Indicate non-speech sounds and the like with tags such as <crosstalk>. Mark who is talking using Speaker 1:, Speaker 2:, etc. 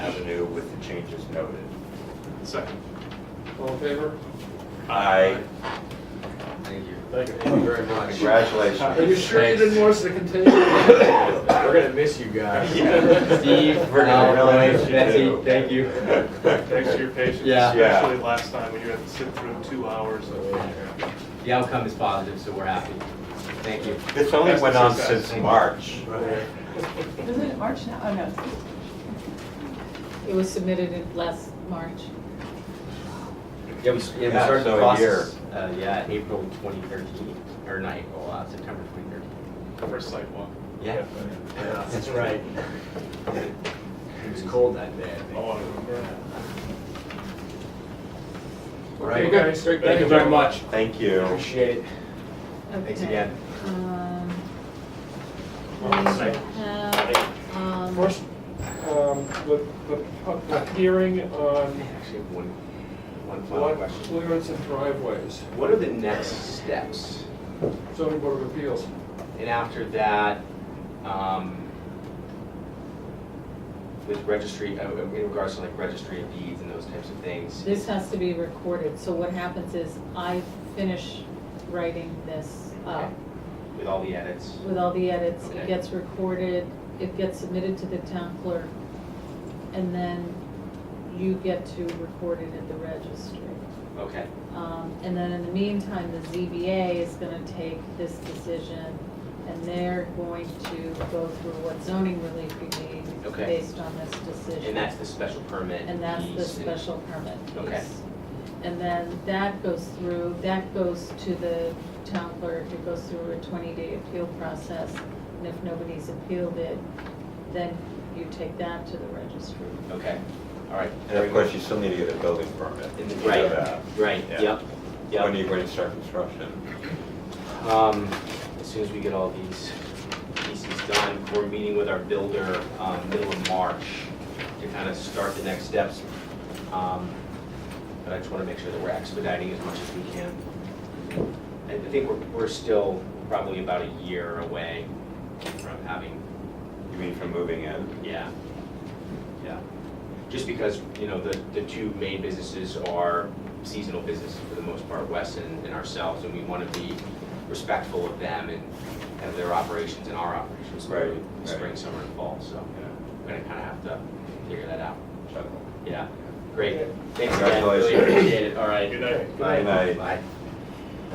Speaker 1: changes noted.
Speaker 2: Second.
Speaker 3: All in favor?
Speaker 1: I,
Speaker 4: Thank you.
Speaker 5: Thank you.
Speaker 4: Thank you very much.
Speaker 3: Are
Speaker 1: congratulations.
Speaker 3: you sure you didn't want us to continue?
Speaker 4: We're gonna miss you guys.
Speaker 2: Yeah.
Speaker 4: <laughs> Steve,
Speaker 1: We're gonna
Speaker 4: Al,
Speaker 1: really miss
Speaker 4: Mike,
Speaker 1: you
Speaker 4: Betsy,
Speaker 1: too.
Speaker 4: thank you.
Speaker 2: Thanks for your patience,
Speaker 4: Yeah.
Speaker 2: especially last time when you had to sit through two hours of.
Speaker 4: The outcome is positive, so we're happy. Thank you.
Speaker 1: This only went on
Speaker 2: Success.
Speaker 1: since March.
Speaker 6: Isn't it March now? Oh, no.
Speaker 7: It was submitted in last March.
Speaker 4: Yeah, we, s- yeah, we
Speaker 1: Yeah,
Speaker 4: started
Speaker 1: so
Speaker 4: the
Speaker 1: a
Speaker 4: process, uh, yeah, April twenty thirteen, or not April, uh, September twenty thirteen.
Speaker 2: First sidewalk.
Speaker 4: Yeah. <laughs> That's right. It was cold that day, I think.
Speaker 2: Oh, I remember that.
Speaker 3: Okay,
Speaker 4: Right.
Speaker 3: guys, great.
Speaker 5: Thank you very much.
Speaker 1: Thank you.
Speaker 4: Appreciate it. Thanks
Speaker 7: Okay,
Speaker 4: again.
Speaker 7: um,
Speaker 5: Well,
Speaker 7: we
Speaker 5: site-
Speaker 7: have, um,
Speaker 3: First, um, the, the, pu- the hearing
Speaker 4: I
Speaker 3: on
Speaker 4: actually have one, one final
Speaker 3: lot
Speaker 4: question.
Speaker 3: clearance and driveways,
Speaker 4: What are the next steps?
Speaker 3: zoning board of appeals.
Speaker 4: And after that, um, with registry, uh, in regards to like registry of deeds and those types of things.
Speaker 7: This has to be recorded, so what happens is I finish writing this
Speaker 4: okay,
Speaker 7: up
Speaker 4: With all the edits.
Speaker 7: uh, with all the edits.
Speaker 4: Okay.
Speaker 7: It gets recorded, it gets submitted to the town clerk, and then you get to record it at the registry.
Speaker 4: Okay,
Speaker 7: Um, And then in the meantime, the ZBA is gonna take this decision, and they're going to go through what zoning relief we need
Speaker 4: Okay.
Speaker 7: based on this decision.
Speaker 4: and that's the special permit.
Speaker 7: And that's the
Speaker 4: piece and-
Speaker 7: special permit piece.
Speaker 4: Okay.
Speaker 7: And then that goes through, that goes to the town clerk, it goes through a twenty-day appeal process, and if nobody's appealed it, then you take that to the registry.
Speaker 4: Okay, all right.
Speaker 1: And of course, you still need to get a building permit.
Speaker 4: And the-
Speaker 1: to do
Speaker 4: Right,
Speaker 1: that.
Speaker 4: right,
Speaker 1: Yeah.
Speaker 4: yep,
Speaker 1: When
Speaker 4: yep.
Speaker 1: you, when you start construction.
Speaker 4: Um, as soon as we get all these pieces done, we're meeting with our builder, um, middle of March to kind of start the next steps. Um, But I just want to make sure that we're expediting as much as we can. I I think we're, we're still probably about a year away from having
Speaker 1: You mean from moving in?
Speaker 4: Yeah, yeah. Just because, you know, the, the two main businesses are seasonal businesses for the most part, Wes and, and ourselves, and we want to be respectful of them and have their operations and our operations.
Speaker 1: Right,
Speaker 4: in Spring,
Speaker 1: right.
Speaker 4: summer, and fall, so we're gonna kind of have to figure that out.
Speaker 1: Shuttle.
Speaker 4: Yeah, great. Thanks again, really
Speaker 1: Congratulations.
Speaker 4: appreciate it, all right.
Speaker 2: Good night.
Speaker 4: Bye.
Speaker 1: Good night.
Speaker 4: Bye.